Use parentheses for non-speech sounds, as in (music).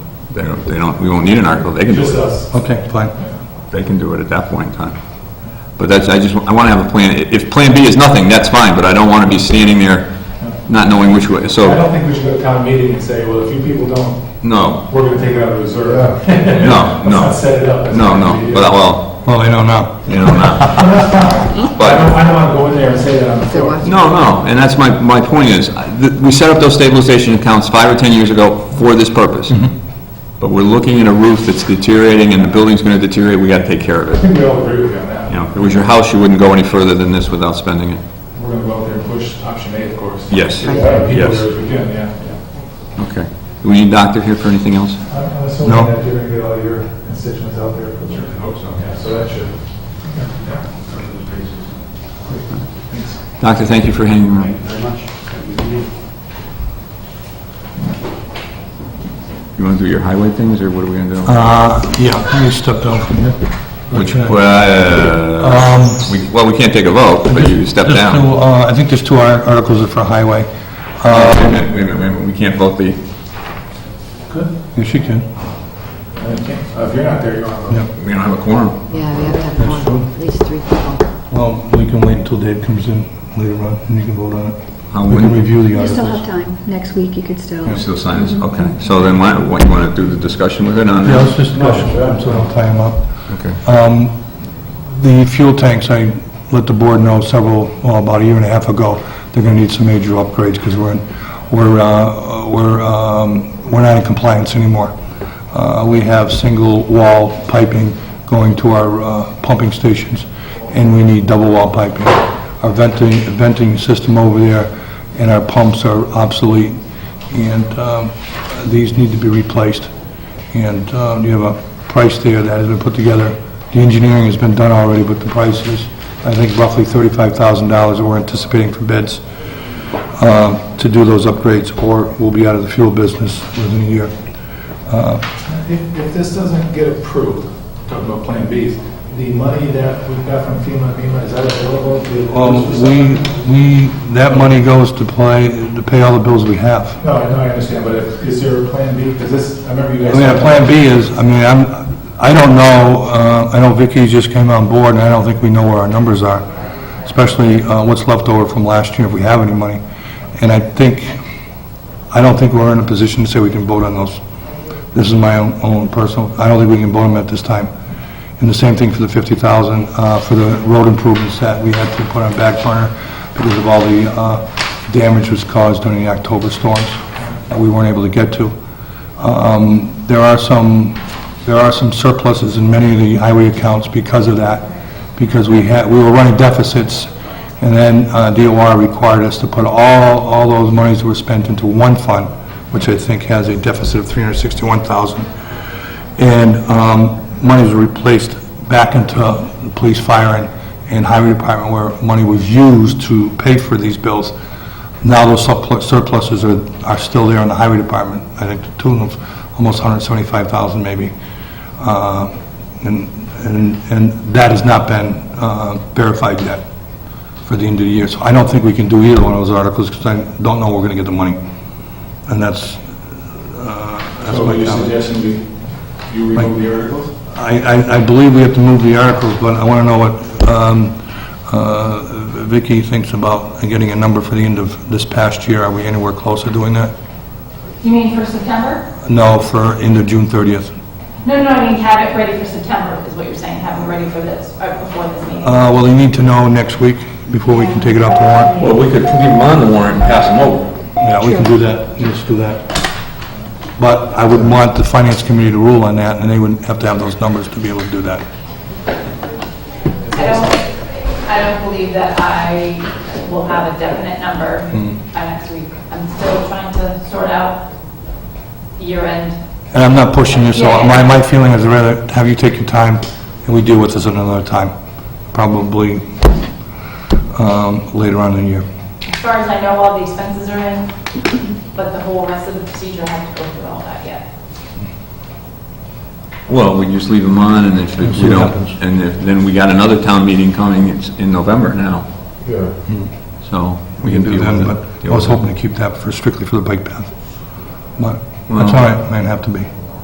They don't, they don't, we won't need an article, they can do Just it, us. Okay, fine. they can do it at that point in time. But that's, I just, I want to have a plan, I- if Plan B is nothing, that's fine, but I don't want to be standing there not knowing which way, I so, don't think we should go to town meeting and say, well, if you people don't, no, we're gonna take it out of reserve. no, (laughs) Let's not no, set it up. as no, an no, idea. but, well, Well, they don't know. you know, not. I But, don't, I don't wanna go in there and say that on the floor. No, no, and that's my, my point is, I- th- we set up those stabilization accounts five or 10 years ago for this purpose. But we're looking at a roof that's deteriorating and the building's gonna deteriorate, we gotta take care of I it. think we all agree with you on that. You know, if it was your house, you wouldn't go any further than this without spending it. We're gonna go out there and push option A, of course. Yes. Get as many people Yes. there as we can, yeah. Okay. Do we need doctor here for anything else? I'm I'm assuming No. that you're gonna get all your constituents out there. for sure. I hope so, yeah, so that should. Doctor, thank you for hanging around. very much. You wanna do your highway things, or what are we gonna do? Uh, yeah, you stepped down from here. Which, Okay. well, uh, Um, we- well, we can't take a vote, but you step There's two, down. uh, I think there's two ar- articles for highway. Uh, Wait a minute, wait a minute, wait a minute, we can't vote the, Yes, you can. Uh, If you're not there, you want to. Yeah. we don't have a quorum. Yeah, we have to have That's one, at least three people. Well, we can wait until Dave comes in later on, and you can vote on it. How We can would- review the You still have articles. time. Next week, you could still. You still sign this? Okay. So then why, what, you want to do the discussion with it on Yeah, that? let's just, No, sure. I'm sorry, I'll tie him up. Okay. Um, The fuel tanks, I let the board know several, well, about a year and a half ago, they're gonna need some major upgrades, because we're, in- we're, uh, we're, um, we're not in compliance anymore. Uh, we have single-wall piping going to our uh, pumping stations, and we need double-wall piping. Our venting, venting system over there and our pumps are obsolete, and um, these need to be replaced. And um, you have a price there that has been put together. The engineering has been done already, but the price is, I think, roughly $35,000 that we're anticipating for bids uh, to do those upgrades, or we'll be out of the fuel business within a year. If, if this doesn't get approved, talking about Plan Bs, the money that we've got from FEMA, FEMA, is that available? to- Well, Um, we, we, that money goes to play, to pay all the bills we have. No, I know, I understand, but if- is there a Plan B? Because this, I remember you I guys. mean, our plan B is, I mean, I'm, I don't know, uh, I know Vicky just came on board, and I don't think we know where our numbers are, especially, uh, what's left over from last year, if we have any money. And I think, I don't think we're in a position to say we can vote on those. This is my own, own personal, I don't think we can vote them at this time. And the same thing for the 50,000, uh, for the road improvements that we had to put on back burner because of all the, uh, damage was caused during the October storms that we weren't able to get to. Um, there are some, there are some surpluses in many of the highway accounts because of that, because we had, we were running deficits, and then uh, DOR required us to put all, all those monies that were spent into one fund, which I think has a deficit of 361,000 and um, money was replaced back into the police, fire, and- and highway department where money was used to pay for these bills. Now those surplu- surpluses are, are still there in the highway department, I think to the tune of almost 175,000 maybe. Uh, And, and and that has not been uh, verified yet for the end of the year. So I don't think we can do either one of those articles because I don't know where we're going to get the money. And that's, uh, that's So my are you comment. suggesting we, you remove the articles? I, I, I believe we have to move the articles, but I want to know what um, uh, Vicky thinks about getting a number for the end of this past year. Are we anywhere close to doing that? You mean for September? No, for end of June 30th. No, no, I mean have it ready for September, is what you're saying, have it ready for this, uh, before this meeting. Uh, Well, they need to know next week before we can take it off the warrant. Well, we could leave them on the warrant and pass them over. Yeah, we can do that. Let's do that. But I would want the finance committee to rule on that, and they would have to have those numbers to be able to do that. I don't, I don't believe that I will have a definite number by next week. I'm still trying to sort out year-end. And I'm not pushing you, so my, my feeling is rather have you take your time, and we deal with this at another time, probably um, later on in the year. As far as I know, all the expenses are in, but the whole rest of the procedure, I haven't go through all that yet. Well, we just leave them on, and if And if see we what don't, happens. and if- then we got another town meeting coming, it's in November now, Yeah. so We can do deal then, with it. but I Deal was with it. hoping to keep that for strictly for the bike path. But Well- that's all right, might have to be.